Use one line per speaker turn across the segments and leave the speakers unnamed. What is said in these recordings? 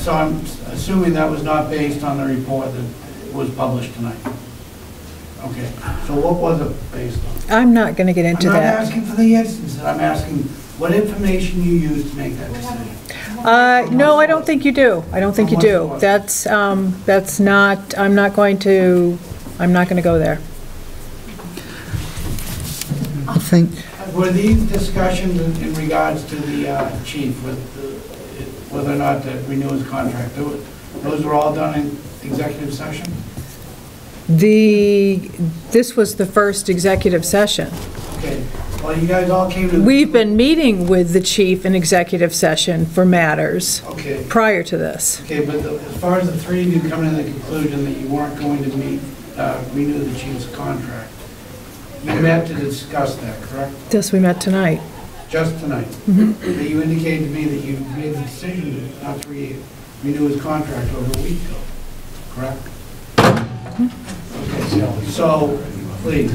So I'm assuming that was not based on the report that was published tonight? Okay, so what was it based on?
I'm not going to get into
I'm not
that.
asking for the instances, I'm asking what information you used to make that decision.
Uh, No, I don't think you do. I don't think you do. That's, um, that's not, I'm not going to, I'm not going to go there.
I think,
Were these discussions in- in regards to the uh, chief with the- whether or not to renew his contract? Tho- Those were all done in executive session?
The, this was the first executive session.
Okay, well, you guys all came to... the-
We've been meeting with the chief in executive session for matters
Okay,
prior to this.
okay, but the- as far as the three of you coming to the conclusion that you weren't going to meet, uh, renew the chief's contract, you met to discuss that, correct?
This we met tonight.
Just tonight? But you indicated to me that you made the decision not to re- renew his contract over a week ago, correct? Okay, so- so, please,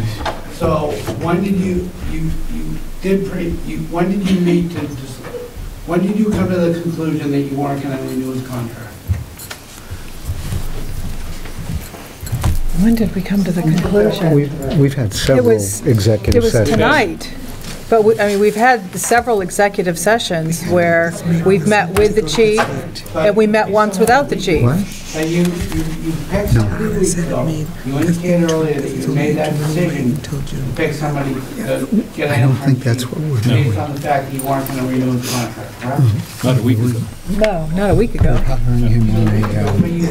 so when did you, you, you did, pre? you, when did you meet to, dis- when did you come to the conclusion that you weren't going to renew his contract?
When did we come to the conclusion?
we've we've had several
was- It
executive
was
sessions.
tonight. But, we- I mean, we've had several executive sessions where we've met with the chief, and we met once without the chief.
What?
And you, you you picked somebody a week ago. You indicated earlier that you made that decision to pick somebody to get
I
an
don't think
internship
that's what we're doing. Mm-hmm.
Based on the fact that you weren't going to renew his contract, correct?
Not a week ago.
No, not a week ago.
Hiring him on a, uh,
But you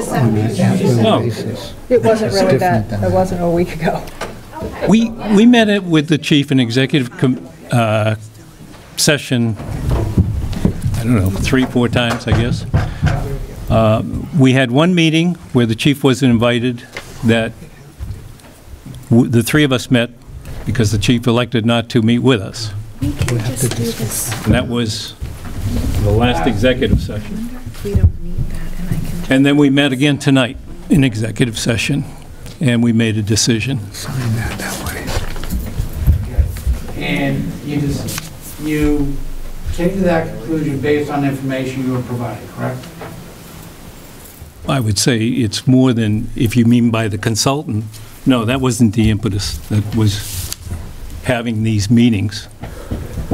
said,
on an
No.
at-will basis.
It wasn't
It's
really
different
that,
than
it wasn't a week ago.
We, we met it with the chief in executive com- uh, session, I don't know, three, four times, I guess. Uh, We had one meeting where the chief wasn't invited, that w- the three of us met because the chief elected not to meet with us.
We can just do this.
And that was the last executive session.
We don't need that, and I can just.
And then we met again tonight in executive session, and we made a decision.
Sign that that way.
and you just, you came to that conclusion based on the information you were provided, correct?
I would say it's more than, if you mean by the consultant, no, that wasn't the impetus, that was having these meetings.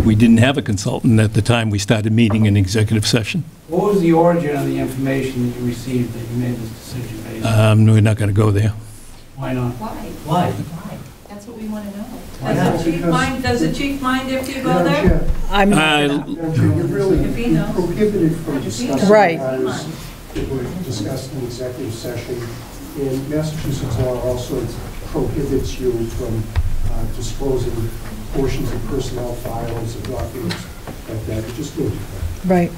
We didn't have a consultant at the time we started meeting in executive session.
What was the origin of the information that you received that you made this decision based on?
Um, We're not going to go there.
Why not?
Why?
Why?
That's what we want to know.
Why
That's
not?
what she-
Chief mind, does the chief mind if you go there?
I'm not
Uh,
gonna-
You're really
If he knows.
prohibited from discussing
Right.
matters that were discussed in executive session. And Massachusetts law also prohibits you from uh, disclosing portions of personnel files and documents like that. You just do it.
right.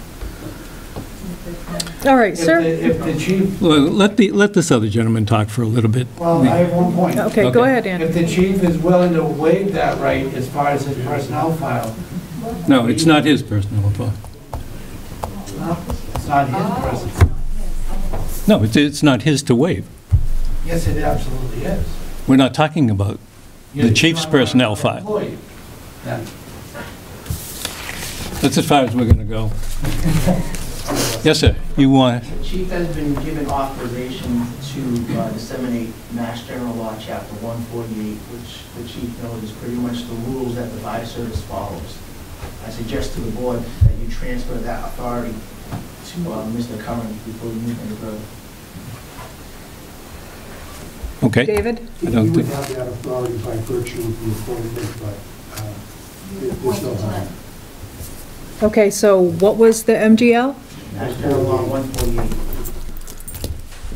All right,
If
sir.
the- If the chief,
Well, Let the, let this other gentleman talk for a little bit.
well, I have one point.
Okay, go
Okay.
ahead, Andy.
If the chief is willing to waive that right as far as his personnel file,
No, it's not his personal fault.
it's not his personnel.
No, it's, it's not his to waive.
Yes, it absolutely is.
We're not talking about, The chief's personnel file.
Employee, then.
that's as far as we're going to go. Yes, sir, you want,
The chief has been given authorization to uh, disseminate Mass General Law, Chapter 148, which the chief knows is pretty much the rules that the fire service follows. I suggest to the board that you transfer that authority to uh, Mr. Curran before you move any further.
okay.
David?
I don't
You would
think-
have that authority by virtue of the appointment, but uh, there- there's no harm.
Okay, so what was the MGL?
Mass General Law 148,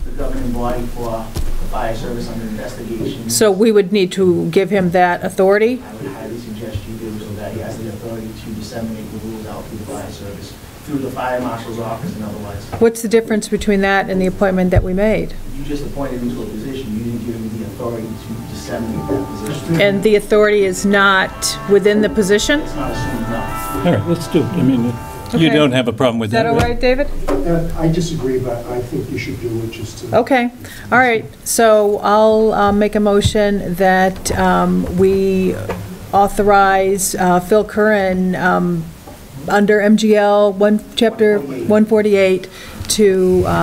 the governing body for the fire service under investigation.
So we would need to give him that authority?
I would highly suggest you do so that he has the authority to disseminate the rules out through the fire service, through the fire marshal's office and otherwise.
What's the difference between that and the appointment that we made?
You just appointed him to a position, you didn't give him the authority to disseminate that position.
And the authority is not within the position?
It's not assumed enough.
All right, let's do it. I mean, you
Okay.
don't have a problem with
Is that
that,
all
right?
right, David?
Uh, I disagree, but I think you should do it just to.
Okay, all right, so I'll uh, make a motion that um, we authorize uh, Phil Curran, um, under MGL, one, chapter 148, to um,